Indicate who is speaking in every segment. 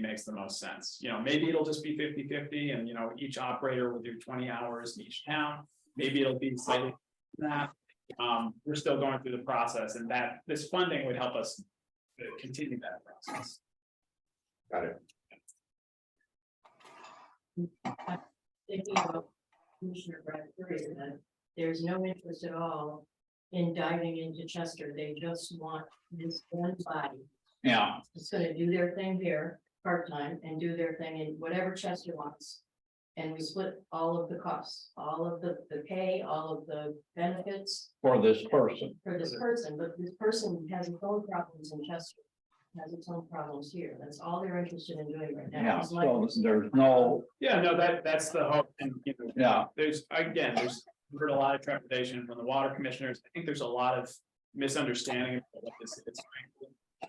Speaker 1: makes the most sense. You know, maybe it'll just be 50-50, and, you know, each operator will do twenty hours in each town. Maybe it'll be slightly that. Um, we're still going through the process and that this funding would help us uh, continue that process.
Speaker 2: Got it.
Speaker 3: thinking about Commissioner Bradbury, and that there's no interest at all in diving into Chester. They just want this one body.
Speaker 1: Yeah,
Speaker 3: It's gonna do their thing here, part-time, and do their thing in whatever Chester wants. And we split all of the costs, all of the, the pay, all of the benefits
Speaker 4: for this person.
Speaker 3: for this person, but this person has its own problems in Chester. Has its own problems here. That's all they're interested in doing right now.
Speaker 4: Yeah,
Speaker 3: It's like-
Speaker 4: so there's no,
Speaker 1: yeah, no, that, that's the hope and, you know,
Speaker 4: yeah,
Speaker 1: there's, again, there's we've heard a lot of trepidation from the water commissioners. I think there's a lot of misunderstanding of what this is.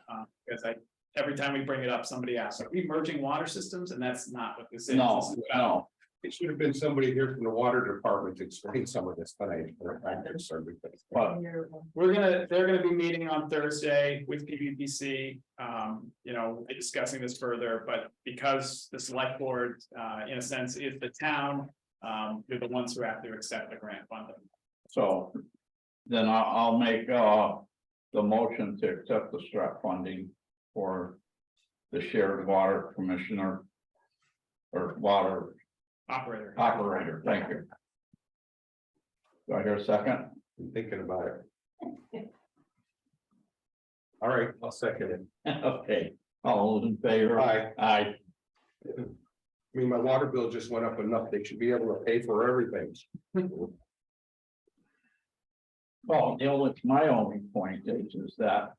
Speaker 1: Uh, Because I, every time we bring it up, somebody asks, are we merging water systems? And that's not what this is. This
Speaker 4: no,
Speaker 1: is about
Speaker 4: no.
Speaker 2: It should have been somebody here from the water department to explain some of this, but I, I'm concerned with it.
Speaker 4: But
Speaker 3: They're-
Speaker 1: We're gonna, they're gonna be meeting on Thursday with PVPC, um, you know, we'll be discussing this further, but because the select board, uh, in a sense, is the town. Um, they're the ones who have to accept the grant funding.
Speaker 4: So then I'll, I'll make, uh, the motion to accept the strap funding for the shared water commissioner or water
Speaker 1: Operator.
Speaker 4: operator. Thank you. Do I hear a second?
Speaker 2: I'm thinking about it. All right, I'll second it.
Speaker 4: Okay, all those in favor?
Speaker 2: Aye.
Speaker 4: Aye.
Speaker 2: I mean, my water bill just went up enough. They should be able to pay for everything.
Speaker 4: Well, Neil, it's my only point is, is that.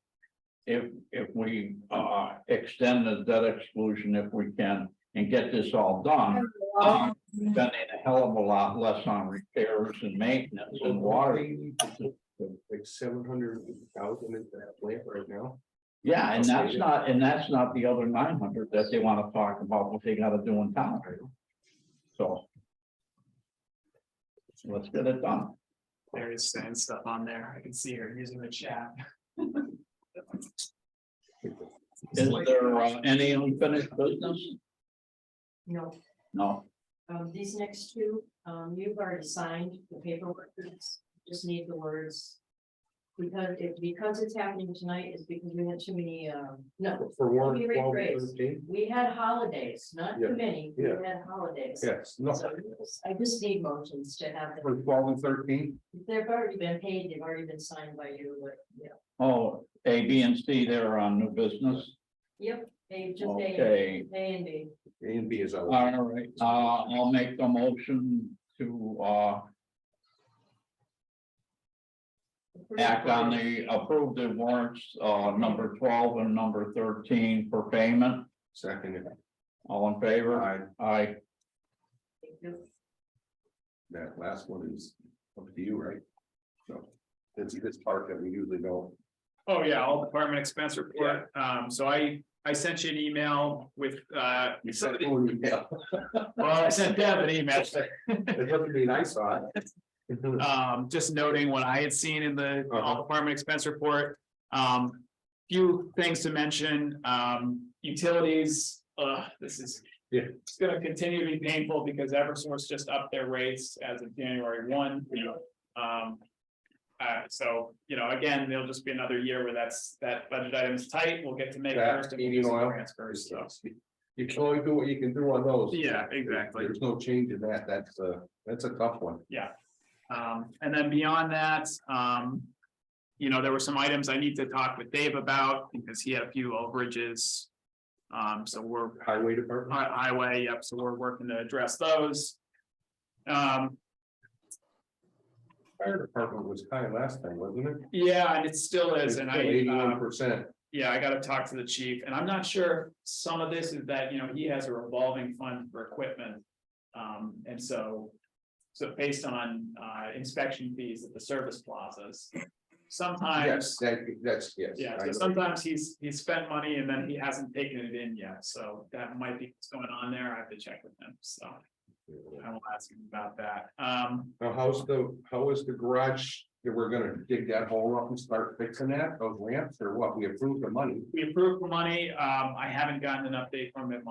Speaker 4: If, if we, uh, extend the debt exclusion if we can and get this all done. um, Spending a hell of a lot less on repairs and maintenance and water.
Speaker 2: Like seven hundred thousand in that plant right now.
Speaker 4: Yeah, and that's not, and that's not the other nine hundred that they wanna talk about what they gotta do in town. So. so Let's get it done.
Speaker 1: There is saying stuff on there. I can see her using the chat.
Speaker 4: Is there uh, any unfinished business?
Speaker 3: No.
Speaker 4: No,
Speaker 3: Um, these next two, um, you've already signed the paperwork, it's- just need the words. Because it, because it's happening tonight is because we had too many, um, no,
Speaker 2: For
Speaker 3: Let
Speaker 2: Warren,
Speaker 3: me
Speaker 2: twelve,
Speaker 3: rephrase.
Speaker 2: thirteen?
Speaker 3: we had holidays, not too
Speaker 2: Yeah,
Speaker 3: many, we
Speaker 2: yeah.
Speaker 3: had holidays.
Speaker 2: Yes, no,
Speaker 3: So I just need motions to have them,
Speaker 2: for twelve and thirteen,
Speaker 3: they've already been paid, they've already been signed by you, but, yeah.
Speaker 4: oh, A, B, and C, they're on new business.
Speaker 3: Yep, they just, A,
Speaker 4: Okay,
Speaker 3: A and B,
Speaker 2: A and B is out.
Speaker 4: all right, uh, I'll make the motion to, uh, act on the approved warrants, uh, number twelve and number thirteen for payment.
Speaker 2: Second,
Speaker 4: All in favor?
Speaker 2: I,
Speaker 4: Aye.
Speaker 2: that last one is up to you, right? So, it's this part that we usually don't.
Speaker 1: Oh, yeah, all department expense report. Um, so I, I sent you an email with, uh,
Speaker 2: You
Speaker 1: some
Speaker 2: said
Speaker 1: of
Speaker 2: it
Speaker 1: the-
Speaker 2: when you- yeah.
Speaker 1: well, I sent Deb an email.
Speaker 2: It doesn't mean I saw it.
Speaker 1: Um, just noting what I had seen in the all
Speaker 2: Uh-huh.
Speaker 1: department expense report. Um, few things to mention, um, utilities, uh, this is.
Speaker 2: Yeah.
Speaker 1: It's gonna continue to be painful because Eversource just upped their rates as of January one, you know, um. Uh, so, you know, again, there'll just be another year where that's, that budget item's tight, we'll get to make
Speaker 2: That,
Speaker 1: first and
Speaker 2: heating oil.
Speaker 1: transfers, so.
Speaker 2: You can only do what you can do on those.
Speaker 1: Yeah, exactly.
Speaker 2: There's no change in that. That's a, that's a tough one.
Speaker 1: Um, and then beyond that, um. You know, there were some items I need to talk with Dave about because he had a few overages. Um, so we're
Speaker 2: Highway department.
Speaker 1: hi- highway, yep, so we're working to address those. Um,
Speaker 2: Fire department was high last time, wasn't it?
Speaker 1: yeah, and it still is, and I, um,
Speaker 2: Eighty-one percent.
Speaker 1: Yeah, I gotta talk to the chief, and I'm not sure, some of this is that, you know, he has a revolving fund for equipment. Um, and so, so based on, uh, inspection fees at the service plazas,
Speaker 2: Yes,
Speaker 1: sometimes.
Speaker 2: that, that's, yes.
Speaker 1: Yeah,
Speaker 2: I
Speaker 1: so
Speaker 2: know.
Speaker 1: sometimes he's, he's spent money and then he hasn't taken it in yet, so that might be what's going on there, I have to check with him, so. I will ask him about that. Um,
Speaker 2: Now, how's the, how is the garage, that we're gonna dig that hole up and start fixing that, those ramps or what? We approved the money.
Speaker 1: we approved for money. Um, I haven't gotten an update from him